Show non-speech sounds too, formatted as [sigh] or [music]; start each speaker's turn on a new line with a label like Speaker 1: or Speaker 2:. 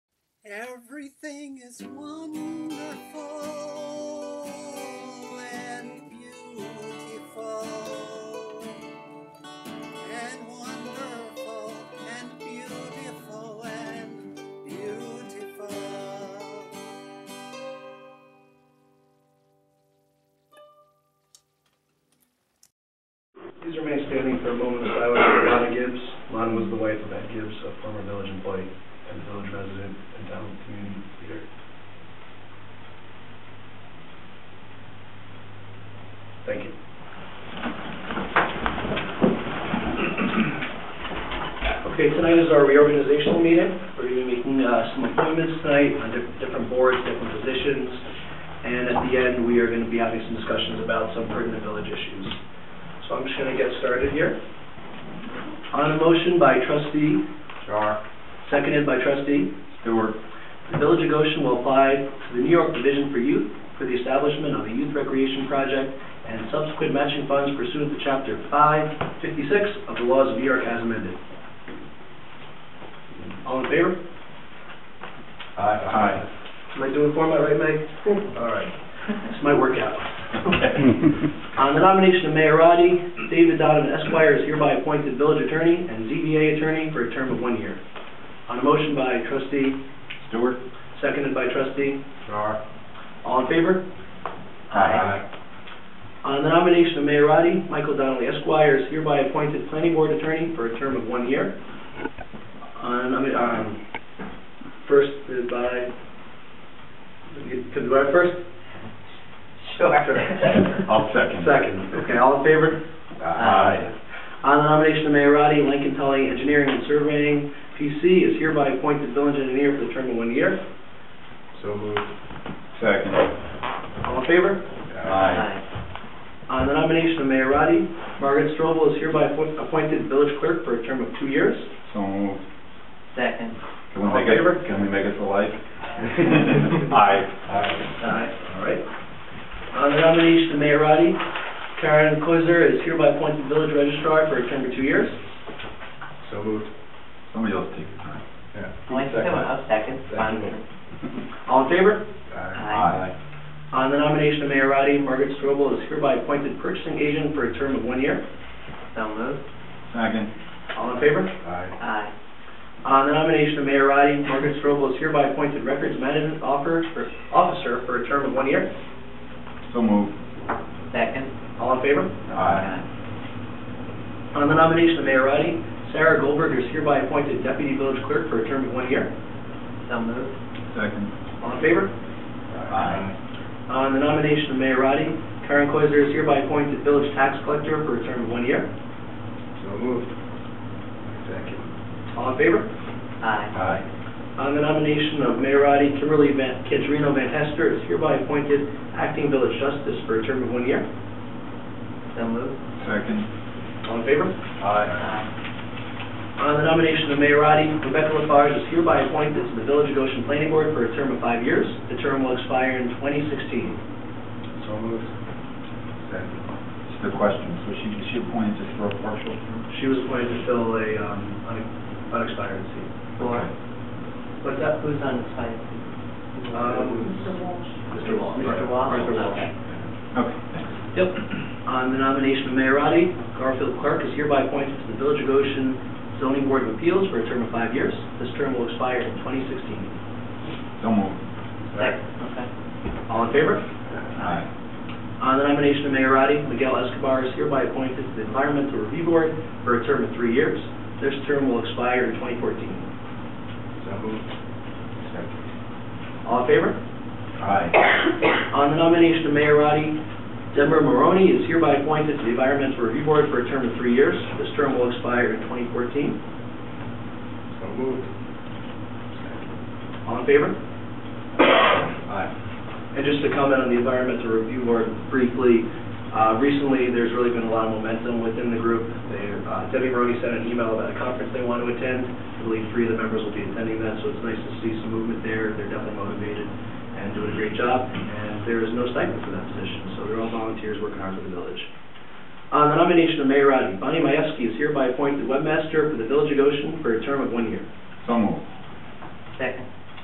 Speaker 1: Everything is wonderful and beautiful and wonderful and beautiful and beautiful.
Speaker 2: Please remain standing for a moment of silence for Lana Gibbs. Lana was the wife of Ed Gibbs, a former village employee and village resident and town community leader. Thank you. Okay, tonight is our reorganizational meeting. We're going to be making uh, some appointments tonight on di- different boards, different positions. And at the end, we are going to be having some discussions about some pertinent village issues. So I'm just going to get started here. On a motion by trustee,
Speaker 3: Char.
Speaker 2: seconded by trustee,
Speaker 3: Stewart.
Speaker 2: the Village of Goshen will apply to the New York Division for Youth for the establishment of a youth recreation project and subsequent matching funds pursuant to Chapter 556 of the laws of New York as amended. All in favor?
Speaker 3: Aye.
Speaker 2: Am I doing format right, Meg? All right. It's my workout.
Speaker 3: [laughs]
Speaker 2: On the nomination of Mayorati, David Donovan Esquire is hereby appointed village attorney and ZBA attorney for a term of one year. On a motion by trustee,
Speaker 3: Stewart.
Speaker 2: seconded by trustee,
Speaker 3: Char.
Speaker 2: all in favor?
Speaker 3: Aye.
Speaker 2: On the nomination of Mayorati, Michael Donnelly Esquire is hereby appointed planning board attorney for a term of one year. On, I mean, um, first uh, by, could do I first? Sure.
Speaker 3: I'll second.
Speaker 2: Second, okay, all in favor?
Speaker 3: Aye.
Speaker 2: On the nomination of Mayor Roddy, Lincoln Tully Engineering and Surveying, PC, is hereby appointed village engineer for the term of one year.
Speaker 3: So moved. Second.
Speaker 2: All in favor?
Speaker 3: Aye.
Speaker 2: On the nomination of Mayor Roddy, Margaret Strobel is hereby appoint- appointed village clerk for a term of two years.
Speaker 3: So moved.
Speaker 4: Second.
Speaker 3: Can we
Speaker 2: All in
Speaker 3: make it,
Speaker 2: favor?
Speaker 3: can we make it to life? [laughs] Aye. Aye.
Speaker 2: Aye. All right. On the nomination of Mayor Roddy, Karen Koizer is hereby appointed village registrar for a term of two years.
Speaker 3: So moved. Somebody else take your time. Yeah.
Speaker 4: Only second, I'll second.
Speaker 3: Second.
Speaker 2: All in favor?
Speaker 3: Aye.
Speaker 2: On the nomination of Mayor Roddy, Margaret Strobel is hereby appointed purchasing agent for a term of one year.
Speaker 4: So moved.
Speaker 3: Second.
Speaker 2: All in favor?
Speaker 3: Aye.
Speaker 4: Aye.
Speaker 2: On the nomination of Mayor Roddy, Margaret Strobel is hereby appointed Records Management offer- for- Officer for a term of one year.
Speaker 3: So moved.
Speaker 4: Second.
Speaker 2: All in favor?
Speaker 3: Aye.
Speaker 2: On the nomination of Mayor Roddy, Sarah Goldberg is hereby appointed Deputy Village Clerk for a term of one year.
Speaker 4: So moved.
Speaker 3: Second.
Speaker 2: All in favor?
Speaker 3: Aye.
Speaker 2: On the nomination of Mayor Roddy, Karen Koizer is hereby appointed Village Tax Collector for a term of one year.
Speaker 3: So moved. Second.
Speaker 2: All in favor?
Speaker 4: Aye.
Speaker 3: Aye.
Speaker 2: On the nomination of Mayor Roddy, Kimberly Van Kidrino Van Hester is hereby appointed Acting Village Justice for a term of one year.
Speaker 4: So moved.
Speaker 3: Second.
Speaker 2: All in favor?
Speaker 3: Aye.
Speaker 4: Aye.
Speaker 2: On the nomination of Mayor Roddy, Rebecca Lafarge is hereby appointed to the Village of Goshen Planning Board for a term of five years. The term will expire in 2016.
Speaker 3: So moved. Second. Just a question, so she, she appointed just for a partial term?
Speaker 2: She was appointed to fill a um, un- unexpired seat.
Speaker 4: Four.
Speaker 2: What's that?
Speaker 4: Who's on the side?
Speaker 2: Mr. Walsh.
Speaker 4: Mr. Walsh?
Speaker 2: Arthur Walsh.
Speaker 4: Okay.
Speaker 3: Okay, thanks.
Speaker 2: Yep. On the nomination of Mayor Roddy, Garfield Clark is hereby appointed to the Village of Goshen Zoning Board of Appeals for a term of five years. This term will expire in 2016.
Speaker 3: So moved.
Speaker 4: Second. Okay.
Speaker 2: All in favor?
Speaker 3: Aye.
Speaker 2: On Uh, the nomination of Mayor Roddy, Miguel Escobar is hereby appointed to the Environmental Review Board for a term of three years. This term will expire in 2014.
Speaker 3: So moved. Second.
Speaker 2: All in favor?
Speaker 3: Aye.
Speaker 2: On the nomination of Mayor Roddy, Deborah Maroney is hereby appointed to the Environmental Review Board for a term of three years. This term will expire in 2014.
Speaker 3: So moved.
Speaker 2: All in favor?
Speaker 3: Aye.
Speaker 2: And just to comment on the Environmental Review Board briefly, uh, recently, there's really been a lot of momentum within the group. They, uh, Debbie Maroney sent an email about a conference they want to attend. I believe three of the members will be attending that, so it's nice to see some movement there. They're definitely motivated and doing a great job, and there is no stipend for that position, so they're all volunteers working hard for the village. On the nomination of Mayor Roddy, Bonnie Majewski is hereby appointed webmaster for the Village of Goshen for a term of one year.
Speaker 3: So moved.
Speaker 4: Second.